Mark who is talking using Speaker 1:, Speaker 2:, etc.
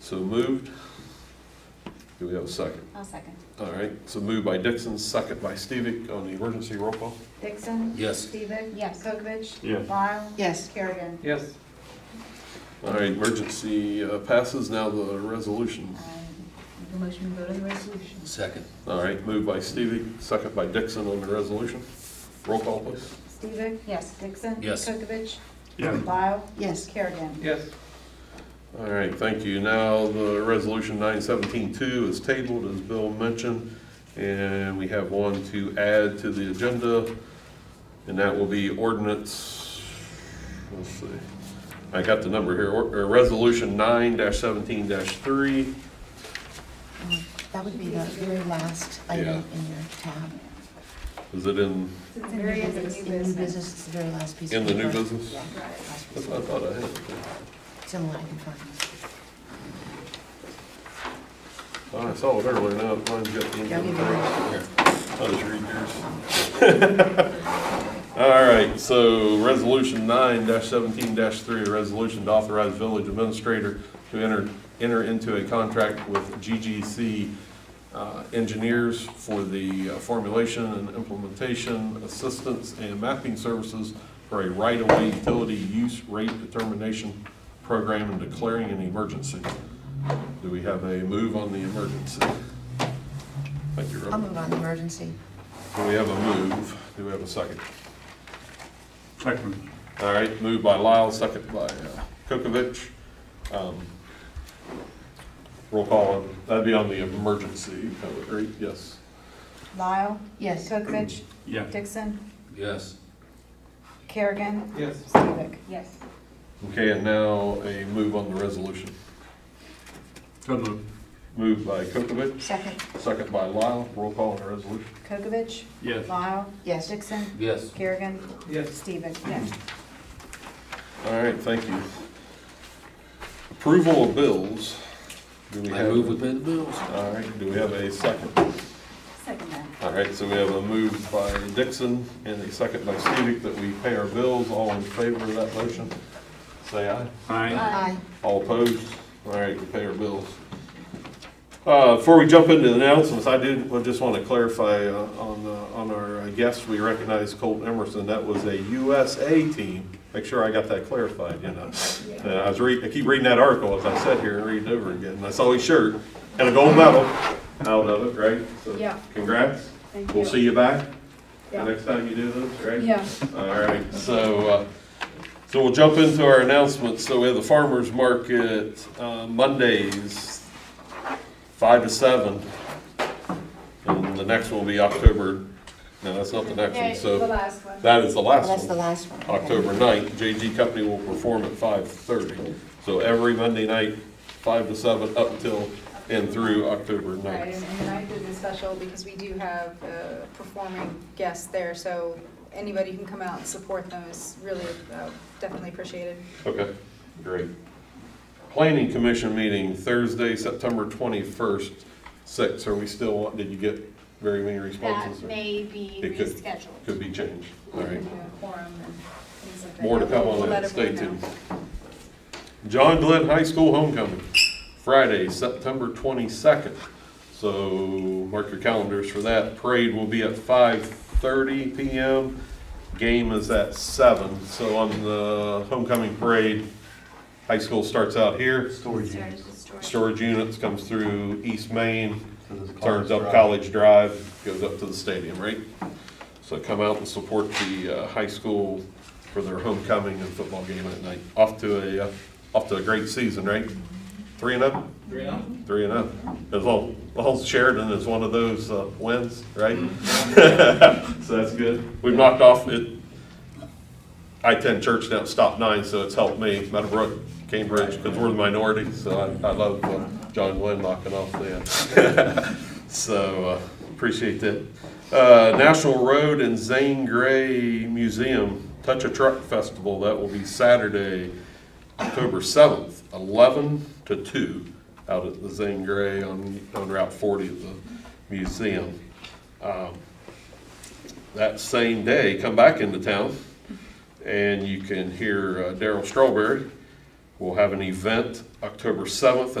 Speaker 1: So moved. Do we have a second?
Speaker 2: I'll second.
Speaker 1: All right, so moved by Dixon, second by Stevic on the emergency roll call.
Speaker 3: Dixon?
Speaker 4: Yes.
Speaker 3: Stevic?
Speaker 2: Yes.
Speaker 3: Kokavich?
Speaker 5: Yes.
Speaker 3: Lyle?
Speaker 6: Yes.
Speaker 3: Kerrigan?
Speaker 5: Yes.
Speaker 1: All right, emergency uh, passes, now the resolution.
Speaker 2: Um, The motion to vote on the resolution.
Speaker 4: Second.
Speaker 1: All right, moved by Stevic, second by Dixon on the resolution. Roll call, please.
Speaker 3: Stevic?
Speaker 2: Yes.
Speaker 3: Dixon?
Speaker 4: Yes.
Speaker 3: Kokavich?
Speaker 5: Yes.
Speaker 3: Lyle?
Speaker 6: Yes.
Speaker 3: Kerrigan?
Speaker 5: Yes.
Speaker 1: All right, thank you. Now, the resolution nine seventeen two is tabled, as Bill mentioned, and we have one to add to the agenda, and that will be ordinance, let's see, I got the number here, or, or resolution nine seventeen three.
Speaker 6: Um, That would be the very last
Speaker 1: Yeah.
Speaker 6: item in your tab.
Speaker 1: Is it in,
Speaker 3: It's in very
Speaker 6: In
Speaker 3: end
Speaker 6: new
Speaker 3: of new
Speaker 6: business- In new
Speaker 3: business.
Speaker 6: business, it's the very last piece. of
Speaker 1: in the new
Speaker 6: paper.
Speaker 1: business?
Speaker 6: Yeah.
Speaker 2: Right.
Speaker 1: That's what I thought I had.
Speaker 6: Similar, I can find.
Speaker 1: Oh, I saw it earlier, now mine's got the.
Speaker 6: I'll give you mine.
Speaker 4: Here.
Speaker 1: I'll just read yours. All right, so resolution nine seventeen three, a resolution to authorize village administrator to enter, enter into a contract with GGC uh, engineers for the uh, formulation and implementation assistance and mapping services for a right-of-way utility use rate determination program and declaring an emergency. Do we have a move on the emergency? Thank you, Rob.
Speaker 6: I'll move on to emergency.
Speaker 1: Do we have a move? Do we have a second?
Speaker 5: Second.
Speaker 1: All right, moved by Lyle, second by uh, Kokavich. Um, Roll call, on- that'd be on the emergency, I would agree, yes.
Speaker 3: Lyle?
Speaker 6: Yes.
Speaker 3: Kokavich?
Speaker 5: Yes.
Speaker 3: Dixon?
Speaker 4: Yes.
Speaker 3: Kerrigan?
Speaker 5: Yes.
Speaker 3: Stevic?
Speaker 2: Yes.
Speaker 1: Okay, and now a move on the resolution.
Speaker 5: So moved.
Speaker 1: Moved by Kokavich,
Speaker 6: Second.
Speaker 1: second by Lyle, roll call on the resolution.
Speaker 3: Kokavich?
Speaker 5: Yes.
Speaker 3: Lyle?
Speaker 6: Yes.
Speaker 3: Dixon?
Speaker 4: Yes.
Speaker 3: Kerrigan?
Speaker 5: Yes.
Speaker 3: Stevic? Yes.
Speaker 1: All right, thank you. Approval of bills. Do we
Speaker 4: I
Speaker 1: have-
Speaker 4: move with the bills.
Speaker 1: All right, do we have a second?
Speaker 2: Second that.
Speaker 1: All right, so we have a move by Dixon and a second by Stevic that we pay our bills. All in favor of that motion, say aye.
Speaker 5: Aye.
Speaker 6: Aye.
Speaker 1: All opposed? All right, we pay our bills. Uh, Before we jump into the announcements, I did, I just want to clarify uh, on, uh, on our guest, we recognize Colton Emerson. That was a USA team. Make sure I got that clarified, you know. And I was reading, I keep reading that article as I sat here and read it over again, and I saw his shirt and a gold medal out of it, right? So
Speaker 7: Yeah.
Speaker 1: Congrats.
Speaker 7: Thank
Speaker 1: We'll
Speaker 7: you.
Speaker 1: see you back the
Speaker 7: Yeah.
Speaker 1: next time you do this, right?
Speaker 7: Yeah.
Speaker 1: All right, so, uh, so we'll jump into our announcements. So we have the farmer's market uh, Mondays, five to seven. And the next one will be October, no, that's not the next one,
Speaker 7: the
Speaker 1: so
Speaker 7: last one.
Speaker 1: that is the
Speaker 6: Well, That's
Speaker 1: last
Speaker 6: the
Speaker 1: one.
Speaker 6: last one. Okay.
Speaker 1: October 9th, JG Company will perform at five thirty. So every Monday night, five to seven, up till and through October 9th.
Speaker 7: Right, and and I did this special because we do have uh, performing guests there, so anybody who can come out and support them is really uh, definitely appreciated.
Speaker 1: Okay, great. Planning Commission meeting Thursday, September twenty-first, six. Are we still, want- did you get very many responses?
Speaker 2: That
Speaker 1: or
Speaker 2: may be
Speaker 1: It could-
Speaker 2: rescheduled.
Speaker 1: Could be changed, all right.
Speaker 7: You know, Quorum and things like that.
Speaker 1: More to come
Speaker 7: We'll
Speaker 1: on
Speaker 7: let
Speaker 1: that, stay
Speaker 7: everyone
Speaker 1: tuned.
Speaker 7: know.
Speaker 1: John Glenn High School Homecoming, Friday, September twenty-second. So mark your calendars for that. Parade will be at five thirty PM. Game is at seven, so on the homecoming parade, high school starts out here.
Speaker 5: Storage
Speaker 2: Sorry, just storage.
Speaker 1: storage units comes through East Main, turns up College Drive, goes up to the stadium, right? So come out and support the uh, high school for their homecoming and football game at night. Off to a, uh, off to a great season, right? Three and up?
Speaker 5: Three and
Speaker 1: Three and up. As long, long as Sheridan is one of those uh, wins, right? So that's good. We've knocked off it. I-10 Church now stopped nine, so it's helped me. Meadowbrook, Cambridge, because we're the minority, so I, I love uh, John Glenn knocking off uh, the. So uh, appreciate that. Uh, National Road and Zane Gray Museum Touch a Truck Festival, that will be Saturday, October 7th, 11 to 2, out at the Zane Gray on, on Route 40 of the museum. Um, That same day, come back into town, and you can hear uh, Daryl Strawberry will have an event October 7th